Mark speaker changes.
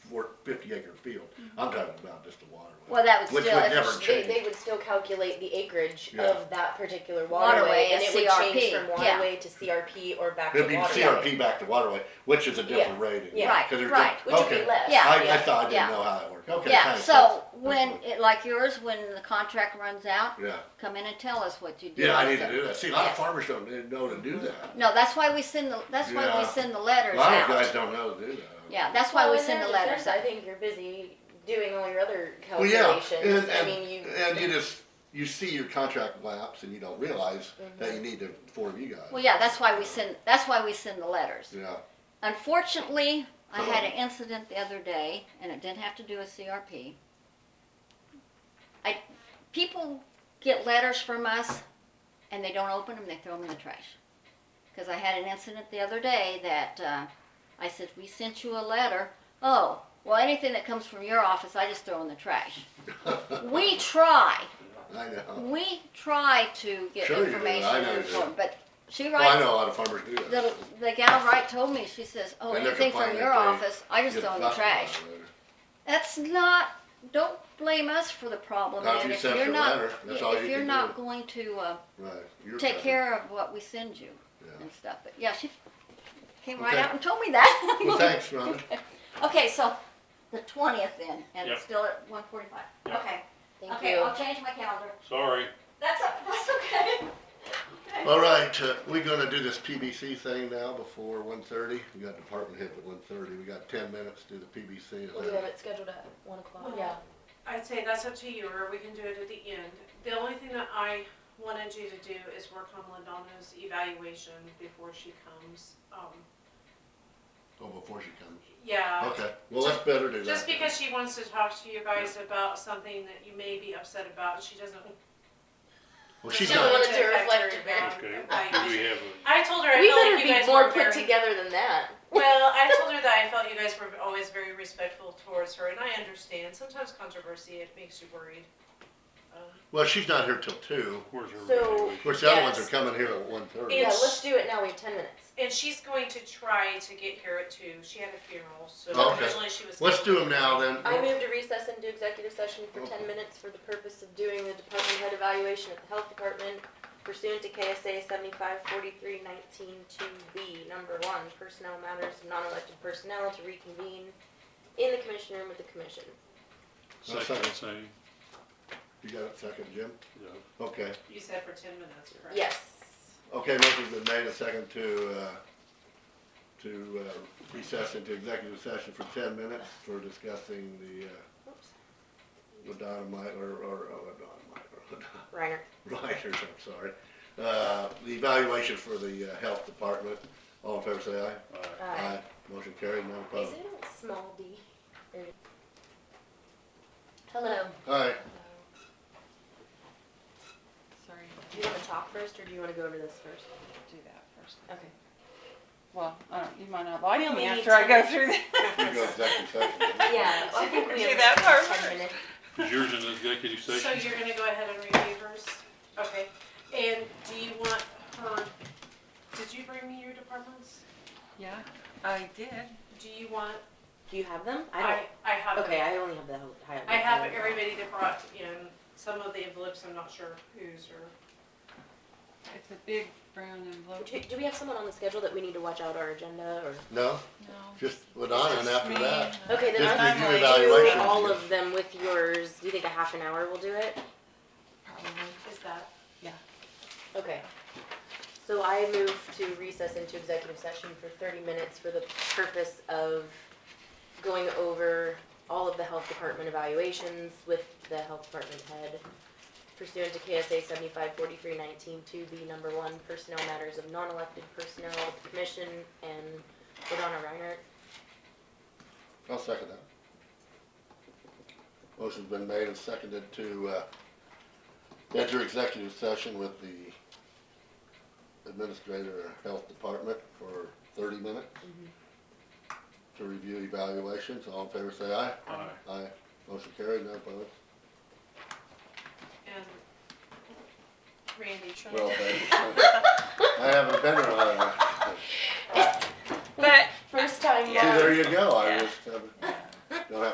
Speaker 1: I'm talking about just the waterway.
Speaker 2: Mm-hmm. Well, that would
Speaker 1: Which
Speaker 2: still,
Speaker 1: would
Speaker 2: if
Speaker 1: never
Speaker 2: it's-
Speaker 3: They, they
Speaker 1: Change.
Speaker 3: would still calculate the acreage
Speaker 1: Yeah.
Speaker 3: of that particular
Speaker 2: Waterway,
Speaker 3: waterway
Speaker 2: a
Speaker 3: and it would
Speaker 2: CRP,
Speaker 3: change from
Speaker 2: yeah.
Speaker 3: waterway to CRP or back to
Speaker 1: It'd be
Speaker 3: waterway.
Speaker 1: CRP back to waterway, which is a different rating.
Speaker 3: yeah.
Speaker 2: Right,
Speaker 1: 'Cause there's
Speaker 2: right.
Speaker 1: diff-
Speaker 3: Which would
Speaker 1: okay.
Speaker 3: be less.
Speaker 2: Yeah.
Speaker 1: I, I thought, I
Speaker 2: Yeah.
Speaker 1: didn't know how it worked. Okay,
Speaker 2: yeah,
Speaker 1: thanks.
Speaker 2: so
Speaker 1: That's-
Speaker 2: when,
Speaker 1: that's
Speaker 2: it- like yours, when the contract runs out,
Speaker 1: good. Yeah,
Speaker 2: come in and tell us what you did.
Speaker 1: yeah, I need
Speaker 2: So-
Speaker 1: to do that. See, a lot
Speaker 2: Yeah. Mm-hmm.
Speaker 1: of farmers don't know to do that.
Speaker 2: No, that's why we send the, that's why we
Speaker 1: Yeah.
Speaker 2: send
Speaker 1: A
Speaker 2: the letters
Speaker 1: lot of
Speaker 2: out.
Speaker 1: guys don't know to do that.
Speaker 2: Yeah, that's why
Speaker 3: Well,
Speaker 2: we
Speaker 3: in
Speaker 2: send
Speaker 3: their
Speaker 2: the letters
Speaker 3: defense, I
Speaker 2: out.
Speaker 3: think you're busy doing all your other
Speaker 1: Well, yeah,
Speaker 3: calculations.
Speaker 1: and,
Speaker 3: I mean, you.
Speaker 1: and, and you just, you see your contract lapse and you don't realize that you need to inform you guys.
Speaker 2: Mm-hmm. Well, yeah, that's why we send, that's why we send the letters.
Speaker 1: Yeah,
Speaker 2: Unfortunately, I had an incident the other day, and it didn't have to do with CRP. I, people get letters from us, and they don't open them, they throw them in the trash. Because I had an incident the other day that, uh, I said, we sent you a letter, oh, well, anything that comes from your office, I just throw in the trash. We try,
Speaker 1: I know.
Speaker 2: we try to get
Speaker 1: Sure you do,
Speaker 2: information
Speaker 1: I know you
Speaker 2: and
Speaker 1: do.
Speaker 2: inform, but she
Speaker 1: Well, I
Speaker 2: writes
Speaker 1: know a lot of farmers do that.
Speaker 2: the, the gal right told me, she says, oh,
Speaker 1: And they're
Speaker 2: anything from
Speaker 1: complaining
Speaker 2: your
Speaker 1: that they
Speaker 2: office, I just
Speaker 1: Get
Speaker 2: throw in the
Speaker 1: busted
Speaker 2: trash.
Speaker 1: by it later.
Speaker 2: That's not, don't blame us for the problem,
Speaker 1: Not if
Speaker 2: and
Speaker 1: you
Speaker 2: if
Speaker 1: sent
Speaker 2: you're
Speaker 1: your
Speaker 2: not,
Speaker 1: letter, that's all
Speaker 2: if
Speaker 1: you
Speaker 2: you're
Speaker 1: can
Speaker 2: not going to, uh,
Speaker 1: Right. You're
Speaker 2: take
Speaker 1: covered.
Speaker 2: care of what we send you
Speaker 1: Yeah.
Speaker 2: and stuff, but yeah, she came right
Speaker 1: Okay.
Speaker 2: out and told me that.
Speaker 1: Well, thanks, Rhonda.
Speaker 2: Okay, so, the twentieth then, and it's
Speaker 4: Yep.
Speaker 2: still at one forty-five,
Speaker 4: Yep.
Speaker 2: okay,
Speaker 3: Thank
Speaker 2: okay,
Speaker 3: you.
Speaker 2: I'll change my calendar,
Speaker 4: Sorry.
Speaker 2: that's, o- that's okay.
Speaker 1: All right, uh, we're gonna do this PBC thing now before one thirty. We got department head at one thirty. We got ten minutes to do the PBC. Is
Speaker 3: We'll do
Speaker 1: that-
Speaker 3: it scheduled at one o'clock.
Speaker 5: One
Speaker 3: Yeah.
Speaker 5: I'd say that's up to you, or we can do it at the end. The only thing that I wanted you to do is work on Lindano's evaluation before she comes. Um,
Speaker 1: Oh, before she comes.
Speaker 5: yeah,
Speaker 1: Okay, well, let's better do that.
Speaker 5: just because she wants to talk to you guys about something that you may be upset about, she doesn't.
Speaker 1: Well, she's
Speaker 5: doesn't
Speaker 1: not,
Speaker 5: want
Speaker 3: She doesn't want it to
Speaker 5: affect her
Speaker 4: Okay.
Speaker 5: bad.
Speaker 4: Do we
Speaker 5: I,
Speaker 4: have
Speaker 5: I told her I
Speaker 3: We
Speaker 5: felt
Speaker 3: better
Speaker 5: like you
Speaker 3: be
Speaker 5: guys
Speaker 3: more
Speaker 5: were
Speaker 3: put
Speaker 5: very-
Speaker 3: together than that.
Speaker 5: Well, I told her that I felt you guys were always very respectful towards her, and I understand. Sometimes controversy it makes you worried. Um,
Speaker 1: well, she's not here till two.
Speaker 4: a, where's her
Speaker 3: So-
Speaker 1: Of
Speaker 4: evaluation?
Speaker 1: course, the other ones are
Speaker 5: Yes.
Speaker 1: coming here at one thirty.
Speaker 5: Yeah.
Speaker 3: Yeah, let's do it now. We have ten minutes.
Speaker 5: And she's going to try to get here at two. She had a funeral, so
Speaker 1: Okay.
Speaker 5: originally she was.
Speaker 1: Let's do them now then.
Speaker 3: I move to recess into executive session for ten minutes for the purpose of doing the department head evaluation of the health department pursuant to KSA seventy-five forty-three nineteen two B, number one, personnel matters, of non-elected personnel to reconvene in the commission room with the commission.
Speaker 4: Second, say,
Speaker 1: You got it second, Jim?
Speaker 4: yeah.
Speaker 1: Okay,
Speaker 5: You said for ten minutes, correct?
Speaker 3: Yes.
Speaker 1: okay, motion's been made a second to, uh, to uh, recess into executive session for ten minutes for discussing the, uh,
Speaker 3: Oops.
Speaker 1: Ladonna Myler, or, oh, or Ladonna Myler,
Speaker 3: Reiner.
Speaker 1: Ryder's, I'm sorry. Uh, the evaluation for the uh, health department, all in favor say aye.
Speaker 4: All right.
Speaker 1: Motion carried, none
Speaker 3: Uh, Is
Speaker 1: opposed.
Speaker 3: it a small d? Or- Uh, Hello.
Speaker 1: Alright,
Speaker 6: Sorry,
Speaker 3: Do you wanna talk first, or do you wanna go over this first?
Speaker 6: do that first.
Speaker 3: Okay.
Speaker 6: Well, I don't, you might not like
Speaker 3: We only
Speaker 6: me
Speaker 3: need
Speaker 6: after I
Speaker 3: ten
Speaker 6: go through that.
Speaker 1: we go executive session.
Speaker 3: Yeah, I think we
Speaker 6: Do
Speaker 3: have
Speaker 6: that part
Speaker 3: ten
Speaker 6: first.
Speaker 3: minutes.
Speaker 4: Is yours in the executive
Speaker 5: So
Speaker 4: session?
Speaker 5: you're gonna go ahead and review hers? Okay. And do you want her, did you bring me your departments?
Speaker 6: Yeah, I did.
Speaker 5: Do you want,
Speaker 3: Do you have them? I
Speaker 5: I,
Speaker 3: don't.
Speaker 5: I have it.
Speaker 3: Okay, I only have the whole.
Speaker 5: I have everybody that brought in, some of the envelopes, I'm not sure whose or,
Speaker 6: It's a big brown envelope.
Speaker 3: Do, do we have someone on the schedule that we need to watch out our agenda or?
Speaker 1: No,
Speaker 6: No.
Speaker 1: just Ladonna and after that,
Speaker 3: Okay, then
Speaker 1: Just
Speaker 3: I'm
Speaker 1: review
Speaker 3: going to
Speaker 1: evaluation.
Speaker 3: do all of them with yours. Do you think a half an hour will do it?
Speaker 5: is that?
Speaker 3: Okay. So I move to recess into executive session for thirty minutes for the purpose of going over all of the health department evaluations with the health department head pursuant to KSA seventy-five forty-three nineteen two B number one, personnel matters of non-elected personnel, commission, and Ladonna Reinhardt.
Speaker 1: I'll second that. Motion's been made and seconded to, uh, enter executive session with the administrator of health department for thirty minutes to review evaluations, all in favor say Mm-hmm. aye.
Speaker 4: All
Speaker 1: Aye,
Speaker 4: right.
Speaker 1: motion carried, none opposed.
Speaker 5: And Randy, try
Speaker 1: Well,
Speaker 5: to.
Speaker 1: thank you. I haven't been around.
Speaker 6: But
Speaker 3: First time.
Speaker 1: See,
Speaker 6: Yeah.
Speaker 1: there you go, I
Speaker 6: Yeah.
Speaker 1: just, um, don't have